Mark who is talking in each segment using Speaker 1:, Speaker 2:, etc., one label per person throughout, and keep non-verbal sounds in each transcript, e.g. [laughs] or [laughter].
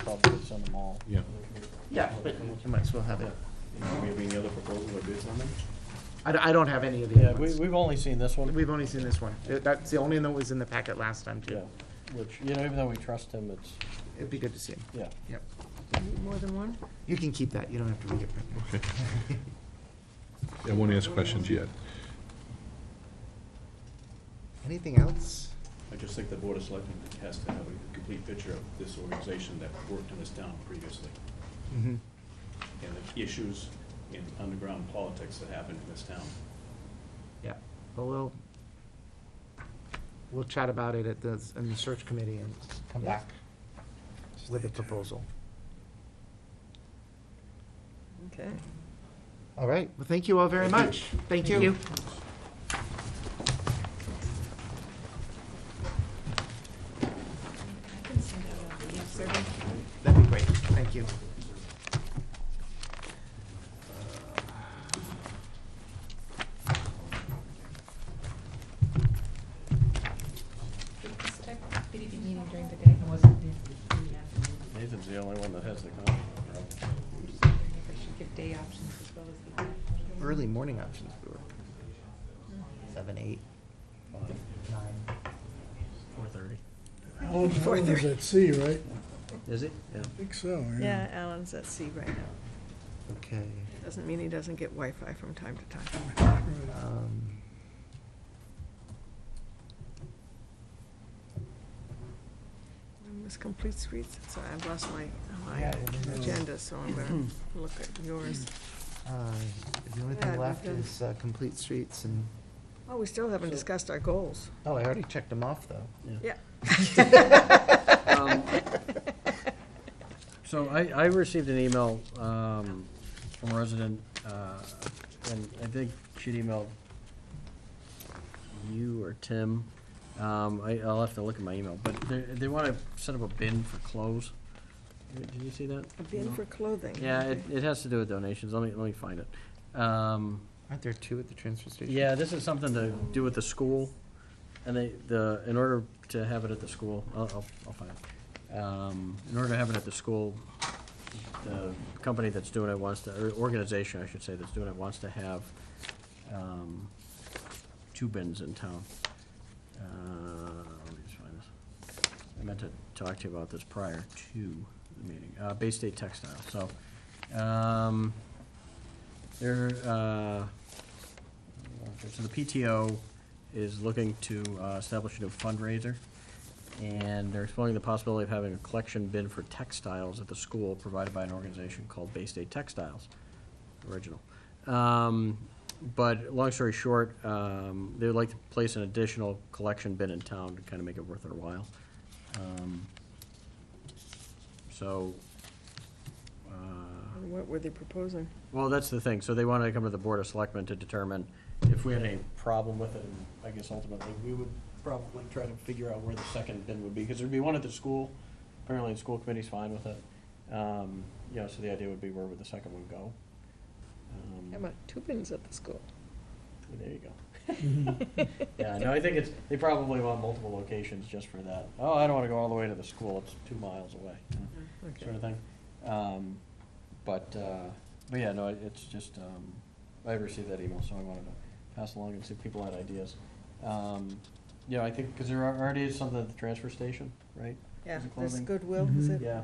Speaker 1: probably would send them all.
Speaker 2: Yeah.
Speaker 3: Yeah, but you might as well have it.
Speaker 4: Do we have any other proposals or bids on them?
Speaker 3: I, don't- I don't have any of the
Speaker 1: Yeah,
Speaker 3: other
Speaker 1: we,
Speaker 3: ones.
Speaker 1: we've only seen this one,
Speaker 3: We've only seen this one. Uh, That's the only one that was in the packet last time,
Speaker 1: yeah,
Speaker 3: too.
Speaker 1: which, you know, even though we trust him, it's,
Speaker 3: It'd be good to see him.
Speaker 1: yeah.
Speaker 3: Yep.
Speaker 5: More than one?
Speaker 3: You can keep that. You don't have to read it.
Speaker 2: Okay. I won't ask questions yet.
Speaker 3: Anything else?
Speaker 4: I just think the Board of Selectmen has to have a complete picture of this organization that worked in this town previously,
Speaker 3: Mm-hmm.
Speaker 4: and the issues in underground politics that happened in this town.
Speaker 3: Yeah, but we'll, we'll chat about it at the, in the search committee and come back with a proposal.
Speaker 5: Okay.
Speaker 3: All right, well, thank you all very much. Thank you. That'd be great, thank you. Uh,
Speaker 6: Did this type of committee be meeting during the day?
Speaker 4: Nathan's the only one that has the copy.
Speaker 6: I should give day options as well as the.
Speaker 3: Early morning options, we were seven, eight, nine.
Speaker 1: Four thirty.
Speaker 7: Alan Allen is at sea, right?
Speaker 1: Is it? Yeah.
Speaker 7: I think so,
Speaker 5: Yeah, Alan's at sea right now.
Speaker 3: Okay.
Speaker 5: Doesn't mean he doesn't get Wi-Fi from time to time.
Speaker 7: [laughs] Right.
Speaker 3: um,
Speaker 5: And This complete streets, so I've lost my, my
Speaker 3: Yeah, it is.
Speaker 5: agenda, so I'm
Speaker 7: [clears throat]
Speaker 5: gonna look at yours.
Speaker 7: Mm.
Speaker 3: uh, The only
Speaker 5: Yeah,
Speaker 3: thing
Speaker 5: we've
Speaker 3: left
Speaker 5: done-
Speaker 3: is uh, complete streets and,
Speaker 5: Oh, we still haven't discussed our goals.
Speaker 3: oh, I already checked them off, though.
Speaker 5: Yeah.
Speaker 1: So I, I received an email um, from a resident, uh, and I think she'd emailed you or Tim. Um, I, I'll have to look at my email, but they, they want to set up a bin for clothes. Did did you see that?
Speaker 5: A bin for clothing.
Speaker 1: Yeah, it,
Speaker 5: okay.
Speaker 1: it has to do with donations. Let me, let me find it. Um,
Speaker 3: Aren't there two at the transfer station?
Speaker 1: yeah, this is something to do with the school, and they, the, in order to have it at the school, I'll, I'll, I'll find it. Um, in order to have it at the school, the company that's doing it wants to, or organization, I should say, that's doing it wants to have, um, two bins in town. Uh, let me just find this. I meant to talk to you about this prior to the meeting, uh, Bay State Textile, so, um, they're, uh, so the PTO is looking to uh, establish a new fundraiser, and they're exploring the possibility of having a collection bin for textiles at the school provided by an organization called Bay State Textiles. Original. Um, But, long story short, um, they would like to place an additional collection bin in town to kind of make it worth their while. Um, So, uh,
Speaker 5: And What were they proposing?
Speaker 1: well, that's the thing, so they wanted to come to the Board of Selectmen to determine if we had any problem with it, and I guess ultimately, we would probably try to figure out where the second bin would be, because there'd be one at the school, apparently the school committee's fine with it. Um, you know, so the idea would be where would the second one go? Um,
Speaker 5: How about two bins at the school?
Speaker 1: There you go.
Speaker 7: Mm-hmm.
Speaker 5: [laughs]
Speaker 1: Yeah, no, I think it's, they probably want multiple locations just for that. Oh, I don't wanna go all the way to the school, it's two miles away,
Speaker 5: Okay.
Speaker 1: sort of thing. Um, but, uh, but yeah, no, it- it's just, um, I received that email, so I wanted to pass along and see if people had ideas. Um, you know, I think, cause there are- already is something at the transfer station, right?
Speaker 5: Yeah,
Speaker 1: Is it
Speaker 5: there's
Speaker 1: clothing?
Speaker 5: Goodwill, is
Speaker 7: Mm-hmm.
Speaker 5: it?
Speaker 1: Yeah.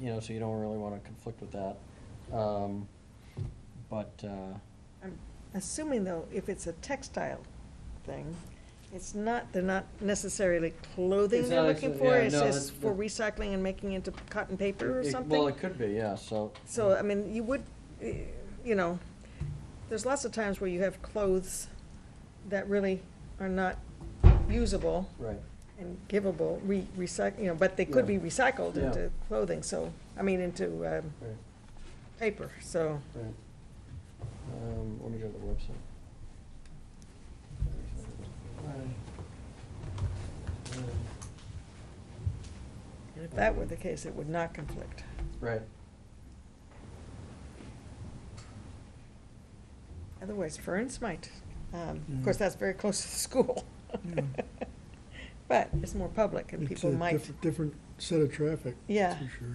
Speaker 1: You know, so you don't really wanna conflict with that. Um, but, uh,
Speaker 5: I'm assuming though, if it's a textile thing, it's not, they're not necessarily clothing
Speaker 1: It's
Speaker 5: they're
Speaker 1: not
Speaker 5: looking
Speaker 1: actually-
Speaker 5: for,
Speaker 1: yeah,
Speaker 5: it's
Speaker 1: no, that's-
Speaker 5: just for recycling and making into cotton paper or
Speaker 1: it-
Speaker 5: something?
Speaker 1: well, it could be, yeah, so.
Speaker 5: So, uh, I mean, you would, eh, you know, there's lots of times where you have clothes that really are not usable
Speaker 1: Right.
Speaker 5: and givable, re, recyc, you know, but they could be
Speaker 1: Yeah.
Speaker 5: recycled
Speaker 1: Yeah.
Speaker 5: into clothing, so, I mean, into, um,
Speaker 1: Right.
Speaker 5: paper, so.
Speaker 1: Right. Um, let me go to the website.
Speaker 5: If that were the case, it would not conflict.
Speaker 1: Right,
Speaker 5: Otherwise, Ferns might. Um, Of
Speaker 7: Mm.
Speaker 5: course, that's very close to the school. [laughs] But it's more public and
Speaker 7: It's
Speaker 5: people
Speaker 7: a
Speaker 5: might,
Speaker 7: diff- Different set of traffic.
Speaker 5: Yeah.
Speaker 7: For sure, yeah.